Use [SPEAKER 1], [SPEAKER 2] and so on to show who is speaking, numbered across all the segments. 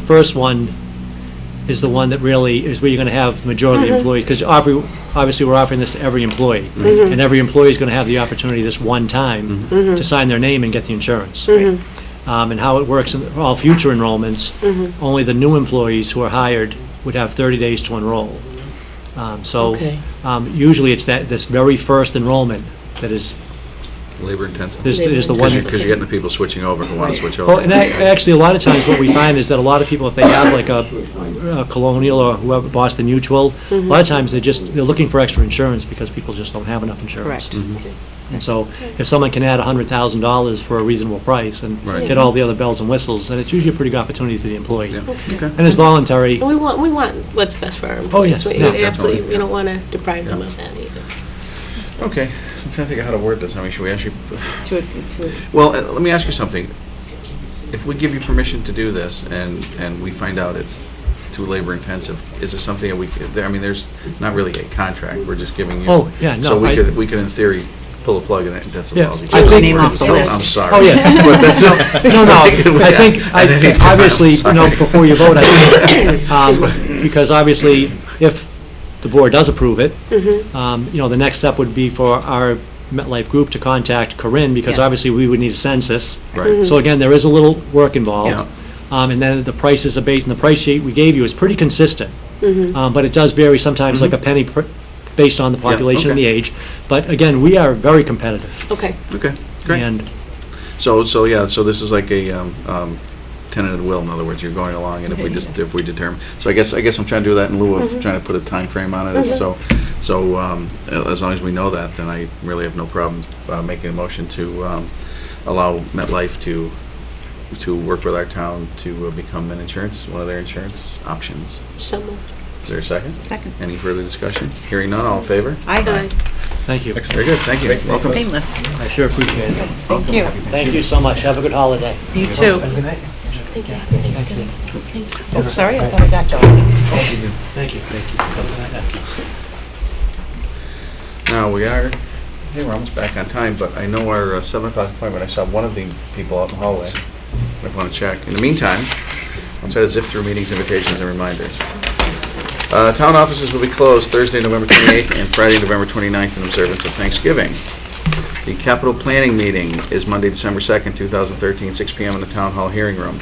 [SPEAKER 1] first one is the one that really, is where you're going to have the majority of the employees, because obviously, we're offering this to every employee, and every employee is going to have the opportunity this one time
[SPEAKER 2] Mm-hmm.
[SPEAKER 1] to sign their name and get the insurance. Um, And how it works in all future enrollments, only the new employees who are hired would have 30 days to enroll. Um, So
[SPEAKER 3] Okay.
[SPEAKER 1] um, usually, it's that, this very first enrollment that is,
[SPEAKER 2] labor intensive.
[SPEAKER 1] is is the one.
[SPEAKER 2] Because you're getting the people switching over who want to switch over.
[SPEAKER 1] Well, and ac- actually, a lot of times what we find is that a lot of people, if they have like a a Colonial or whoever, Boston Mutual, a lot of times they're just, they're looking for extra insurance because people just don't have enough insurance. Mm-hmm.
[SPEAKER 3] Correct.
[SPEAKER 1] And so if someone can add $100,000 for a reasonable price and
[SPEAKER 2] Right.
[SPEAKER 1] get all the other bells and whistles, then it's usually a pretty good opportunity to the employee.
[SPEAKER 2] Yeah,
[SPEAKER 1] And
[SPEAKER 2] okay.
[SPEAKER 1] it's voluntary.
[SPEAKER 3] And we want, we want what's best for our
[SPEAKER 1] yes,
[SPEAKER 3] employees. We-
[SPEAKER 1] yeah,
[SPEAKER 3] Absolutely,
[SPEAKER 2] definitely,
[SPEAKER 3] we don't want to deprive them
[SPEAKER 2] Yeah.
[SPEAKER 3] of that either.
[SPEAKER 2] Okay, so I'm trying to think of how to word this. I mean, should we actually,
[SPEAKER 4] to, to,
[SPEAKER 2] well, uh, let me ask you something. If we give you permission to do this and, and we find out it's too labor intensive, is there something that we, could- I mean, there's not really a contract, we're just giving you.
[SPEAKER 1] Oh, yeah, no,
[SPEAKER 2] So we
[SPEAKER 1] I-
[SPEAKER 2] could, we could in theory pull a plug in it, that's a
[SPEAKER 1] Yeah.
[SPEAKER 2] lousy.
[SPEAKER 1] I Take
[SPEAKER 4] your name off the
[SPEAKER 2] I'm
[SPEAKER 4] list.
[SPEAKER 2] sorry.
[SPEAKER 1] Oh, yes.
[SPEAKER 2] But that's not-
[SPEAKER 1] No, no, I think, I
[SPEAKER 2] At any
[SPEAKER 1] think,
[SPEAKER 2] time, I'm
[SPEAKER 1] obviously, you know,
[SPEAKER 2] sorry.
[SPEAKER 1] before you vote, I think, um, because obviously, if the board does approve it, um, you know, the next step would be for our MetLife group to contact Corinne, because
[SPEAKER 3] Yeah.
[SPEAKER 1] obviously, we would need a census.
[SPEAKER 2] Right.
[SPEAKER 1] So again, there is a little work
[SPEAKER 2] Yeah.
[SPEAKER 1] involved. Um, And then the prices are based, and the price sheet we gave you is pretty consistent. Um, But it does vary sometimes, like a penny per- based on the population and the
[SPEAKER 2] Mm-hmm. okay.
[SPEAKER 1] age. But again, we are very competitive.
[SPEAKER 3] Okay,
[SPEAKER 2] Okay, great.
[SPEAKER 1] And
[SPEAKER 2] So, so, yeah, so this is like a um, um, tenant of the will, in other words, you're going along, and if we just, if we determine, so I guess, I guess I'm trying to do that in lieu of trying to put a time frame on it, so, so um, as long as we know that, then I really have no problem uh, making a motion to um, allow MetLife to, to work with our town to uh, become an insurance, one of their insurance options.
[SPEAKER 3] so moved.
[SPEAKER 2] Is there a second?
[SPEAKER 4] second.
[SPEAKER 2] Any further discussion? Hearing none, all in favor?
[SPEAKER 4] I,
[SPEAKER 1] thank you.
[SPEAKER 2] Very good, thank you, welcome.
[SPEAKER 4] painless.
[SPEAKER 1] I sure appreciate it.
[SPEAKER 4] Thank you.
[SPEAKER 1] Thank you so much. Have a good holiday.
[SPEAKER 4] You too.
[SPEAKER 3] Thank you. Thanks, Kevin.
[SPEAKER 4] Oh, sorry, I thought I got you.
[SPEAKER 1] Thank you.
[SPEAKER 2] Now, we are, hey, we're almost back on time, but I know our uh, seven o'clock appointment, I saw one of the people out in the hallway. I want to check. In the meantime, I'll try to zip through meetings, invitations, and reminders. Uh, Town offices will be closed Thursday, November 28th, and Friday, November 29th, in observance of Thanksgiving. The capital planning meeting is Monday, December 2nd, 2013, 6 PM in the Town Hall Hearing Room.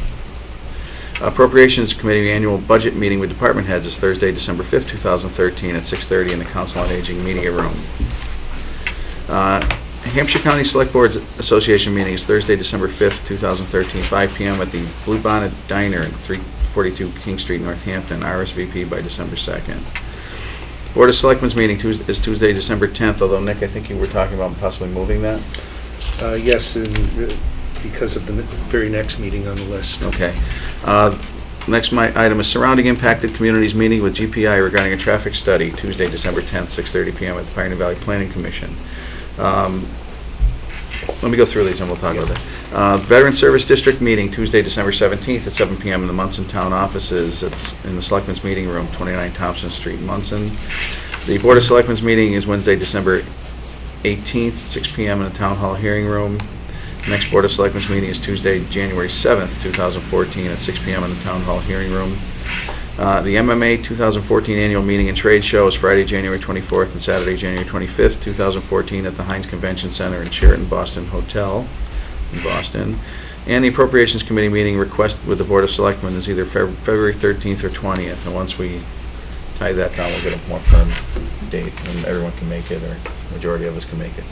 [SPEAKER 2] Appropriations Committee Annual Budget Meeting with Department Heads is Thursday, December 5th, 2013, at 6:30 in the Council on Aging Media Room. Uh, Hampshire County Select Boards Association meeting is Thursday, December 5th, 2013, 5 PM at the Blue Bonnet Diner at 342 King Street, Northampton, RSVP by December 2nd. Board of Selectmen's meeting Tues- is Tuesday, December 10th, although Nick, I think you were talking about possibly moving that?
[SPEAKER 5] Uh, Yes, and uh, because of the ne- very next meeting on the list.
[SPEAKER 2] Okay. Uh, Next mi- item is surrounding impacted communities meeting with GPI regarding a traffic study, Tuesday, December 10th, 6:30 PM at the Pioneer Valley Planning Commission. Um, Let me go through these and we'll talk about that. Uh, Veteran Service District meeting, Tuesday, December 17th at 7 PM in the Munson Town offices. It's in the Selectmen's Meeting Room, 29 Thompson Street, Munson. The Board of Selectmen's meeting is Wednesday, December 18th, 6 PM in the Town Hall Hearing Room. Next Board of Selectmen's meeting is Tuesday, January 7th, 2014, at 6 PM in the Town Hall Hearing Room. Uh, The MMA 2014 Annual Meeting and Trade Show is Friday, January 24th, and Saturday, January 25th, 2014, at the Heinz Convention Center in Sheraton Boston Hotel in Boston. And the Appropriations Committee meeting request with the Board of Selectmen is either Feb- February 13th or 20th, and once we tie that down, we'll get a more firm date, and everyone can make it, or majority of us can make it,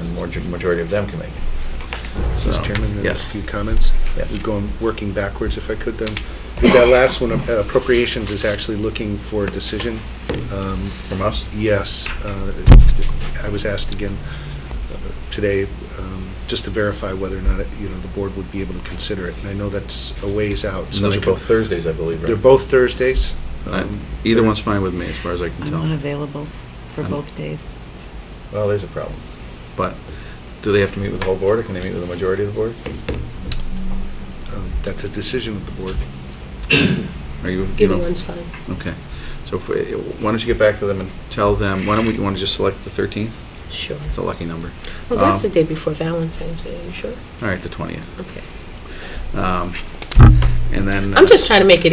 [SPEAKER 2] and more majority of them can make it.
[SPEAKER 5] Mr. Chairman, then a
[SPEAKER 2] Yes.
[SPEAKER 5] few comments.
[SPEAKER 2] Yes.
[SPEAKER 5] We're Going, working backwards, if I could then. With That last one, uh, appropriations is actually looking for a decision. Um,
[SPEAKER 2] From us?
[SPEAKER 5] Yes, uh, I was asked again uh, today, um, just to verify whether or not, it- you know, the board would be able to consider it. And I know that's a ways out. so
[SPEAKER 2] Those
[SPEAKER 5] I
[SPEAKER 2] are
[SPEAKER 5] could-
[SPEAKER 2] both Thursdays, I believe, right?
[SPEAKER 5] They're both Thursdays.
[SPEAKER 2] Uh,
[SPEAKER 5] Um,
[SPEAKER 2] Either one's fine with me, as far as I can
[SPEAKER 4] I'm
[SPEAKER 2] tell.
[SPEAKER 4] unavailable for
[SPEAKER 2] I'm-
[SPEAKER 4] both days.
[SPEAKER 2] Well, there's a problem. But do they have to meet with the whole board, or can they meet with the majority of the board?
[SPEAKER 5] um, That's a decision of the board.
[SPEAKER 2] Are you? you
[SPEAKER 3] Either
[SPEAKER 2] know-
[SPEAKER 3] one's fine.
[SPEAKER 2] Okay. So if we- why don't you get back to them and tell them, why don't we, you want to just select the 13th?
[SPEAKER 3] Sure.
[SPEAKER 2] It's a lucky number.
[SPEAKER 3] Well, that's the
[SPEAKER 2] Um,
[SPEAKER 3] day before Valentine's Day, are you sure?
[SPEAKER 2] All right, the 20th.
[SPEAKER 3] Okay.
[SPEAKER 2] Um, and then. uh,
[SPEAKER 3] I'm just trying to make it